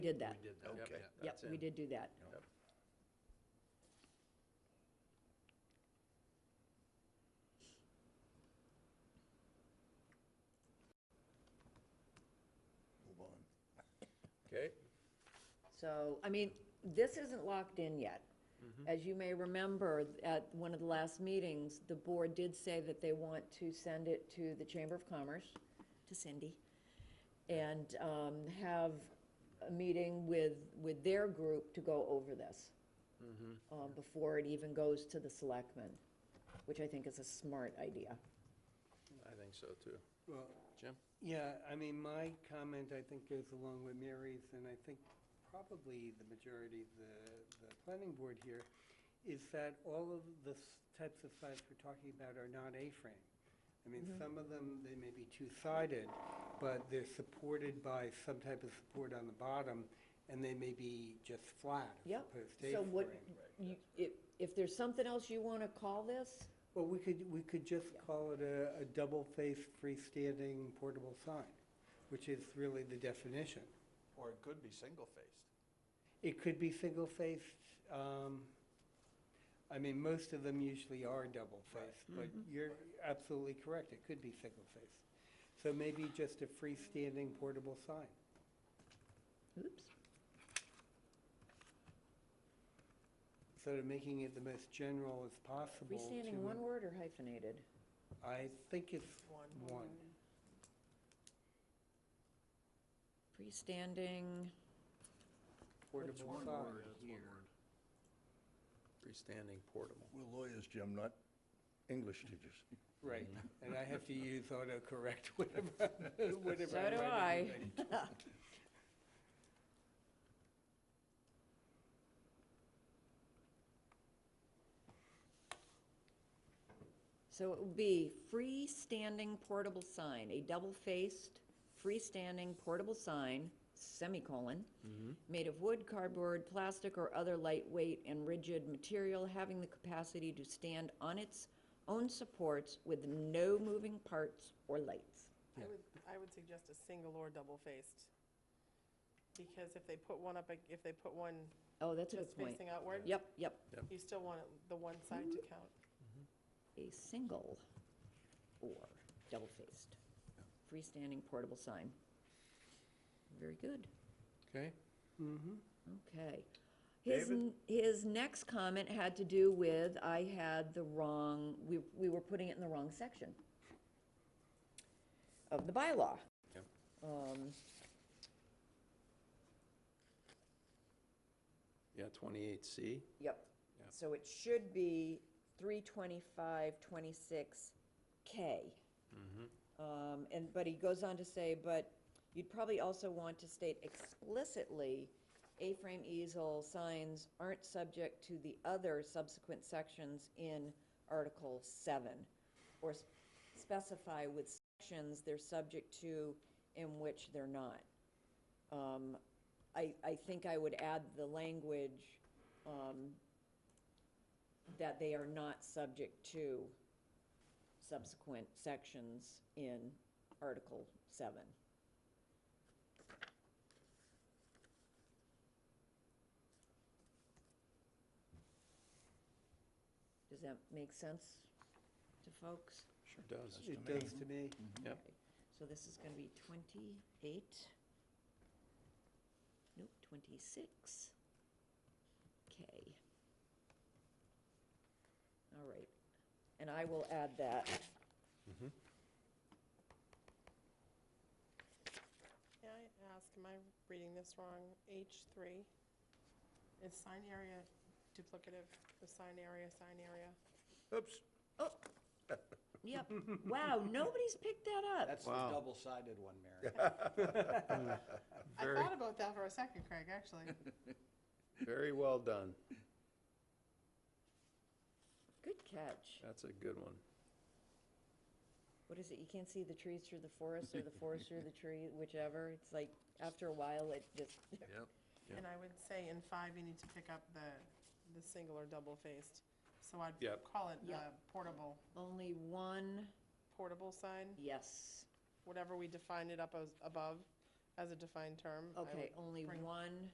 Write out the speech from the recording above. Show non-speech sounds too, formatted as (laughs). did that. We did that, yep, Okay. yep. Yep, we did do that. Move on. Okay, So, I mean, this isn't locked in yet. Mm-hmm. As you may remember, at one of the last meetings, the board did say that they want to send it to the Chamber of Commerce, to Cindy, and um, have a meeting with, with their group to go over this Mm-hmm. uh, before it even goes to the selectmen, which I think is a smart idea. I think so too. Well, Jim? yeah, I mean, my comment, I think, goes along with Mary's, and I think probably the majority of the, the planning board here, is that all of the s- types of sites we're talking about are not A-frame. I mean, Mm-hmm. some of them, they may be two-sided, but they're supported by some type of support on the bottom, and they may be just flat as Yep. opposed to So what, A-frame. you- if, if there's something else you want to call this, Well, we could, we could just call it a, a double-faced freestanding portable sign, which is really the definition. Or it could be single-faced. It could be single-faced, um, I mean, most of them usually are double-faced, but Mm-hmm. you're absolutely correct, it could be single-faced. So maybe just a freestanding portable sign. oops, Sort of making it the most general as possible. freestanding to- one word or hyphenated? I think it's one. Freestanding, Portable sign. Freestanding portable. We're lawyers, Jim, not English teachers. Right, and I have to use autocorrect whenever, whenever. so I'm do writing I. anything. So it would be freestanding portable sign, a double-faced freestanding portable sign, semicolon, made of wood, cardboard, plastic, or other lightweight and rigid material having the capacity to stand on its own supports with no moving parts or lights. I would, I would suggest a single or double-faced. Because if they put one up, ag- if they put one Oh, that's a just good point. facing outward, Yep, yep, you still want it- the one side to count. a single or double-faced freestanding portable sign. Very good. Okay, Okay. His, n- his next comment had to do with, I had the wrong, we, we were putting it in the wrong section of the bylaw. Yep. Um, yeah, twenty-eight C, Yep. Yeah. So it should be three twenty-five, twenty-six K. Um, and, but he goes on to say, but you'd probably also want to state explicitly, A-frame easel signs aren't subject to the other subsequent sections in Article seven. Or s- specify with sections they're subject to in which they're not. Um, I, I think I would add the language, um, that they are not subject to subsequent sections in Article 7. Does that make sense to folks? sure does. It does to me. Yep, Okay, So this is going to be 28, nope, 26. Okay. All right, and I will add that. May I ask, am I reading this wrong? H3, is sign area duplicative, the sign area, sign area? Oops. Oh, yep, wow, nobody's picked that up. That's the Wow. double-sided one, Mary. I Very- thought about that for a second, Craig, (laughs) actually. very well done. Good catch. That's a good one. What is it, you can't see the trees through the forest or the forest through the tree, whichever, it's like, after a while, it just, Yeah. And I would say in five, you need to pick up the, the single or double-faced. So I'd Yep. call it Yep. uh, portable, only one, portable sign. yes. whatever we define it up as above, as a defined term. I Okay, would only bring- one